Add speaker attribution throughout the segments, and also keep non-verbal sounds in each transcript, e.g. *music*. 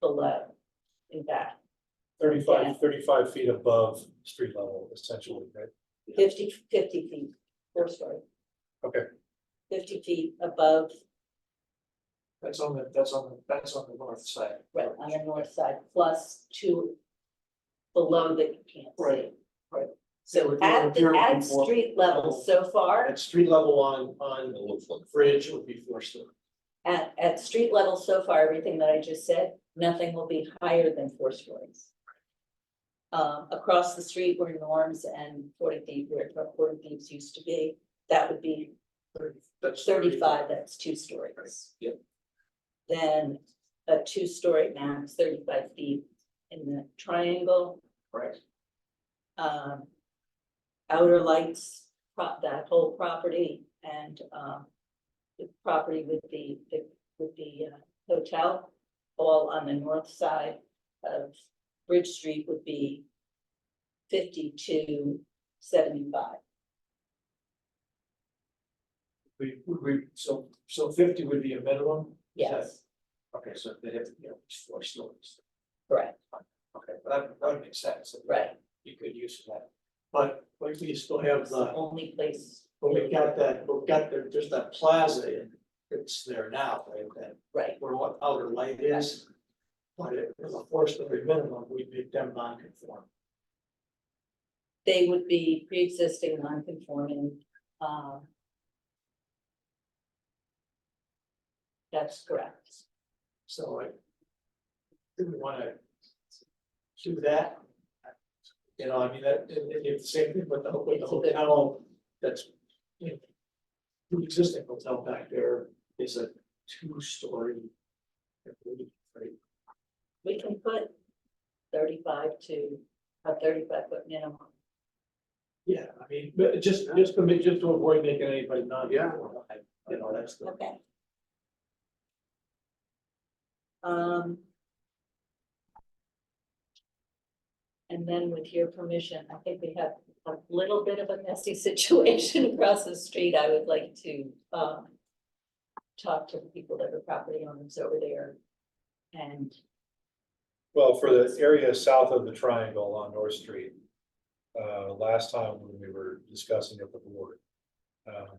Speaker 1: below. In fact, Yeah.
Speaker 2: Thirty-five, thirty-five feet above street level essentially, right?
Speaker 1: fifty, fifty feet, four story.
Speaker 2: Okay.
Speaker 1: Fifty feet above,
Speaker 3: That's on the, that's on the, that's on the north side.
Speaker 1: right, on the north side, plus two below that you can't see.
Speaker 3: Right, right.
Speaker 1: So at the,
Speaker 3: You're- you're-
Speaker 1: at street level so far,
Speaker 3: At street level on, on the bridge would be four story.
Speaker 1: at, at street level so far, everything that I just said, nothing will be higher than four stories. Um, across the street where Norms and Forty Deep, where Forty Deeps used to be, that would be
Speaker 3: That's
Speaker 1: thirty-five, that's two stories.
Speaker 3: Yep.
Speaker 1: Then a two-story max, thirty-five feet in the triangle,
Speaker 3: Right,
Speaker 1: um. Outer lights, prop, that whole property and, um. The property with the, the- with the uh, hotel, all on the north side of Bridge Street would be. Fifty-two seventy-five,
Speaker 3: we, would we, so, so fifty would be a minimum?
Speaker 1: yes,
Speaker 3: Okay, so they have, you know, it's four stories.
Speaker 1: correct,
Speaker 3: Okay, but that, that would make sense.
Speaker 1: right,
Speaker 3: You could use that. But, but we still have
Speaker 1: it's the
Speaker 3: the,
Speaker 1: only place,
Speaker 3: but we've got that, we've got the, there's that plaza in, it's there now, right, that
Speaker 1: right,
Speaker 3: where what outer light is. But it was a four story minimum, we'd make them non-conform.
Speaker 1: they would be pre-existing non-conforming, um. That's correct.
Speaker 3: So I. Do we wanna? Do that? You know, I mean, that, and, and it's the same thing with the, with the
Speaker 1: It's a bit-
Speaker 3: hotel, that's, you know. The existing hotel back there is a two-story. I believe, right?
Speaker 1: We can put thirty-five to a thirty-five foot minimum.
Speaker 3: Yeah, I mean, but just, just to make, just to avoid making anybody non-conform, I, you know, that's the.
Speaker 1: Okay. Um. And then with your permission, I think we have a little bit of a messy *laughs* situation across the street. I would like to, um. Talk to the people that are property owners over there. And,
Speaker 2: Well, for the area south of the triangle on North Street, uh, last time when we were discussing it with the board. um,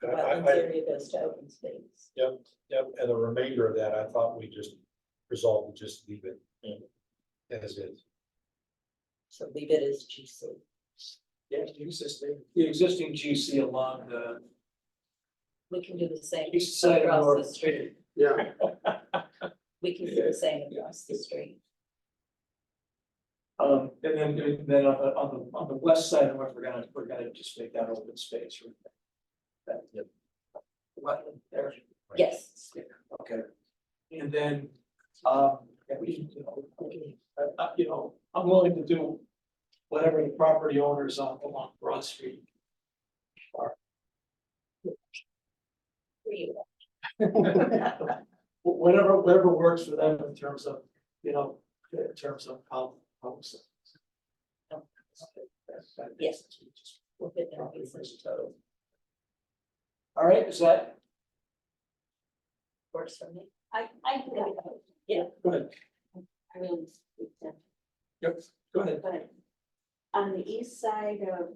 Speaker 1: the
Speaker 2: I- I-
Speaker 1: wetlands
Speaker 2: I-
Speaker 1: area goes to open space.
Speaker 2: Yep, and the remainder of that, I thought we just resolved to just leave it. As is.
Speaker 1: So leave it as GC.
Speaker 3: Yeah, the existing, the existing GC along the
Speaker 1: We can do the same
Speaker 3: east side of
Speaker 1: across
Speaker 3: North.
Speaker 1: the street.
Speaker 3: Yeah.
Speaker 1: We can do the same across the street.
Speaker 3: Um, and then, and then on the, on the, on the west side, we're we're gonna, we're gonna just make that open space. right? That, yep. What, there,
Speaker 1: Yes,
Speaker 3: okay. And then, um, yeah, we, you know, I, I, you know, I'm willing to do whatever the property owners on, along Broad Street. *laughs*
Speaker 1: for you.
Speaker 3: Wh- Whatever, whatever works for them in terms of, you know, in terms of how, how.
Speaker 1: Yes.
Speaker 3: Yes.
Speaker 1: We'll put that in the total,
Speaker 3: All right, is that,
Speaker 1: works for me.
Speaker 4: I, I do that,
Speaker 3: go ahead,
Speaker 4: I really, yeah,
Speaker 3: yep, go ahead.
Speaker 4: but on the east side of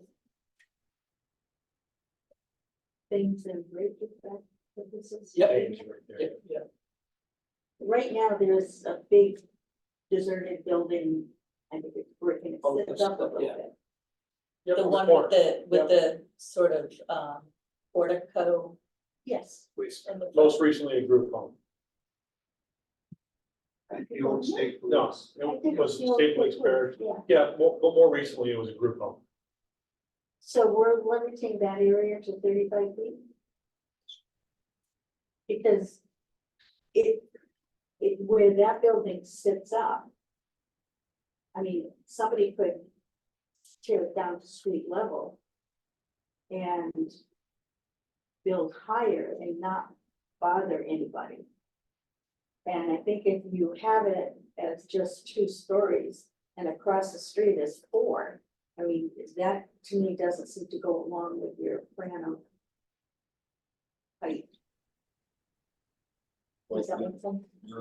Speaker 4: things in Ridge, is that what this is?
Speaker 3: Yep.
Speaker 2: Dave's right there.
Speaker 3: Yeah,
Speaker 4: Right now, there's a big deserted building, I think it's brick and it
Speaker 3: Oh,
Speaker 4: sits up a
Speaker 3: that's-
Speaker 4: little
Speaker 3: yeah.
Speaker 4: bit.
Speaker 3: yeah.
Speaker 1: The one with the, with the sort of, um, portico
Speaker 4: Yes.
Speaker 1: and the.
Speaker 2: Most recently, a group home.
Speaker 3: The old state.
Speaker 2: No, it was state police barracks.
Speaker 4: Yeah,
Speaker 2: Yeah, more, but more recently, it was a group home.
Speaker 4: so we're limiting that area to thirty-five feet? Because it, it, where that building sits up, I mean, somebody could tear it down to street level and build higher and not bother anybody. And I think if you have it as just two stories and across the street is four, I mean, that to me doesn't seem to go along with your plan of height. Does that make sense?